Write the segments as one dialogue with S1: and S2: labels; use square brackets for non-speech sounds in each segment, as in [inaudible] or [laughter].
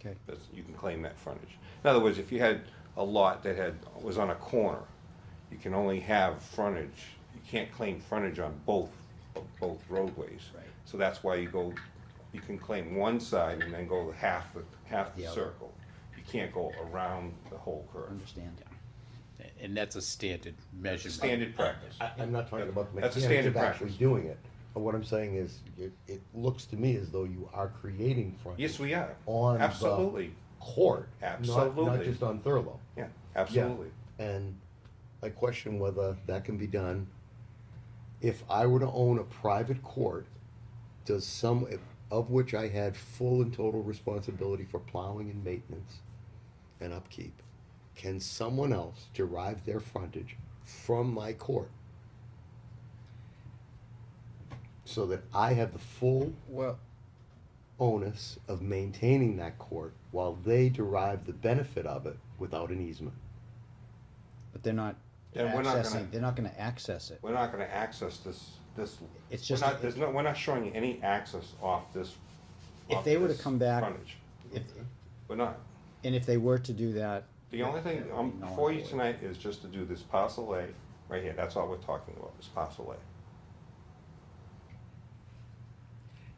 S1: Okay.
S2: That's, you can claim that frontage. In other words, if you had a lot that had, was on a corner, you can only have frontage, you can't claim frontage on both, both roadways.
S1: Right.
S2: So that's why you go, you can claim one side and then go half, the half the
S1: The other.
S2: circle. You can't go around the whole curve.
S1: Understand.
S3: And that's a standard measurement.
S2: Standard practice.
S4: I'm not talking about the
S2: That's a
S4: mechanics
S2: standard
S4: of actually
S2: practice.
S4: doing it. But what I'm saying is, it, it looks to me as though you are creating frontage.
S2: Yes, we are.
S4: On the
S2: Absolutely.
S4: Court. not- Not
S2: Absolutely.
S4: just on Thurlow.
S2: Yeah,
S4: Yeah.
S2: absolutely.
S4: And I question whether that can be done. If I were to own a private court, does some, of which I had full and total responsibility for plowing and maintenance and upkeep, can someone else derive their frontage from my court? So that I have the full
S1: Well,
S4: onus of maintaining that court while they derive the benefit of it without an easement.
S1: but they're not
S2: And we're not gonna-
S1: accessing, they're not gonna access it.
S2: We're not gonna access this, this.
S1: It's
S2: we're
S1: just-
S2: not- There's no, we're not showing you any access off this.
S1: If
S2: off
S1: they were to
S2: this
S1: come back-
S2: frontage.
S1: If,
S2: We're not.
S1: and if they were to do that,
S2: The only thing, um,
S1: Yeah, no one
S2: before you
S1: would.
S2: tonight is just to do this parcel A, right here, that's all we're talking about, is parcel A.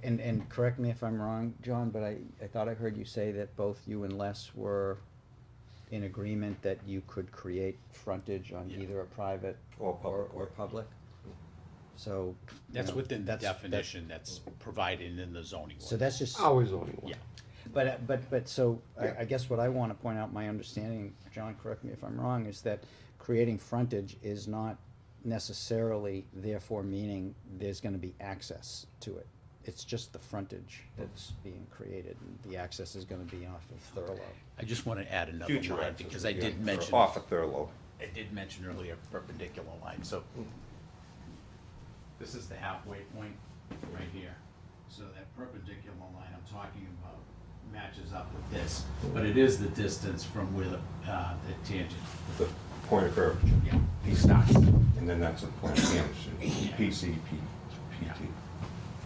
S1: and, and correct me if I'm wrong, John, but I, I thought I heard you say that both you and Les were in agreement that you could create frontage on either a private
S2: Or
S1: or,
S2: public
S1: or
S2: way.
S1: public. So. you
S3: That's
S1: know,
S3: within the
S1: that's- that-
S3: definition that's provided in the zoning
S1: So
S3: ordinance.
S1: that's just.
S4: Always only one.
S3: Yeah,
S1: But, uh, but, but, so,
S4: Yeah.
S1: I, I guess what I wanna point out, my understanding, John, correct me if I'm wrong, is that creating frontage is not necessarily therefore meaning there's gonna be access to it. It's just the frontage that's being created, and the access is gonna be off of Thurlow.
S3: I just want to add another
S2: Future
S3: line,
S2: access.
S3: because I
S2: yeah,
S3: did
S2: or
S3: mention, I
S2: Off of Thurlow,
S3: did mention earlier perpendicular line, so. This is the halfway point, right here. So that perpendicular line I'm talking about matches up with this, but it is the distance from where the, uh, the tangent,
S2: the point of curvature,
S3: yeah, starts.
S2: and then that's a point of tangent, PCP, PT.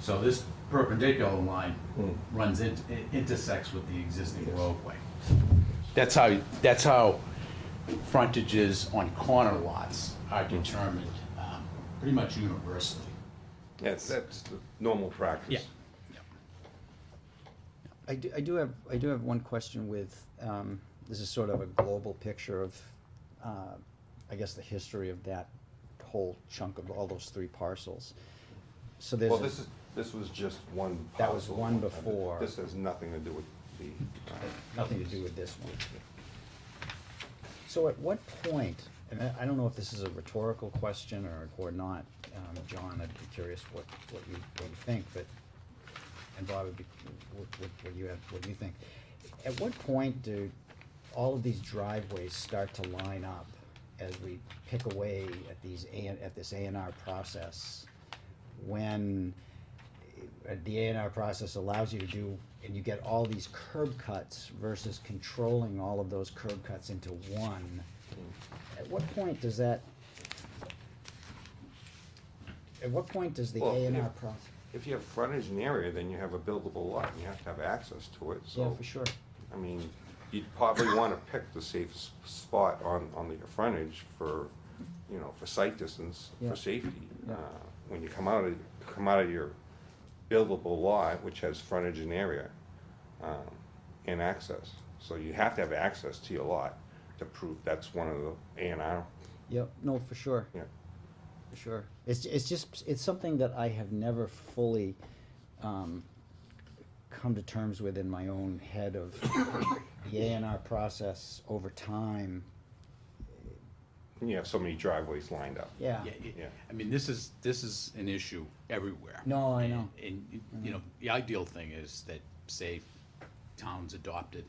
S3: So this perpendicular line
S2: Hmm.
S3: runs in, it intersects with the existing
S2: Yes.
S3: roadway. That's how, that's how frontages on corner lots are determined, um, pretty much universally.
S2: That's, that's the normal practice.
S1: I do, I do have, I do have one question with, um, this is sort of a global picture of, uh, I guess the history of that whole chunk of all those three parcels. So there's.
S2: Well,
S1: a-
S2: this is, this was just one parcel.
S1: That was one
S2: I mean,
S1: before.
S2: This has nothing to do with the, uh,
S1: nothing to do with this one. So at what point, and I, I don't know if this is a rhetorical question or, or not, um, John, I'd be curious what, what you, what you think, but, and Bob would be, what, what, what you have, what you think. At what point do all of these driveways start to line up as we pick away at these, A and at this A and R process? When, uh, the A and R process allows you to do, and you get all these curb cuts versus controlling all of those curb cuts into one. At what point does that? At what point does the
S2: Well,
S1: A and R
S2: if-
S1: process?
S2: if you have frontage in an area, then you have a buildable lot, and you have to have access to it, so.
S1: Yeah, for sure.
S2: I mean, you'd probably wanna pick the safest spot on, on the frontage for, you know, for sight distance,
S1: Yeah.
S2: for safety.
S1: Yeah.
S2: Uh, When you come out of, come out of your buildable lot, which has frontage and area, um, and access. So you have to have access to your lot to prove that's one of the A and R,
S1: Yep, no, for sure.
S2: yeah.
S1: For sure. It's, it's just, it's something that I have never fully, um, come to terms with in my own head of [coughs] the A and R process over time.
S2: And you have so many driveways lined up.
S1: Yeah.
S3: Yeah, it-
S2: Yeah.
S3: I mean, this is, this is an issue everywhere.
S1: No, I know.
S3: And, you know, the ideal thing is that, say, towns adopted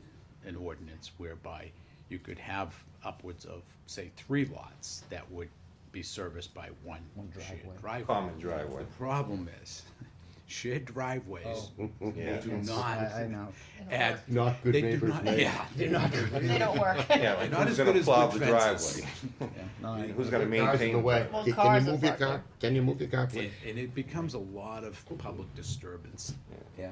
S3: an ordinance whereby you could have upwards of, say, three lots that would be serviced by one
S1: One
S3: shared
S1: driveway.
S3: driveway.
S2: Common driveway.
S3: The problem is, [laughs] shared driveways, they
S1: Oh. [laughs]
S2: Yeah.
S3: do
S1: It's-
S3: not.
S1: I- I know.
S3: add-
S4: Not good
S3: they do
S4: neighbors,
S3: not-
S4: mate.
S3: [laughs] Yeah, they're not good.
S5: They don't work.
S2: Yeah, like
S3: Not
S2: who's
S3: as good
S2: gonna
S3: as
S2: plow the
S3: good fences.
S2: driveway?
S1: Yeah, no, I-
S2: Who's gonna
S4: Cars in
S2: maintain?
S4: the way.
S5: Well,
S4: Can-
S5: cars
S4: Can you
S5: are
S4: move your
S5: parked there.
S4: car? Can you move your car, please?
S3: And, and it becomes a lot of public disturbance.
S1: Yeah.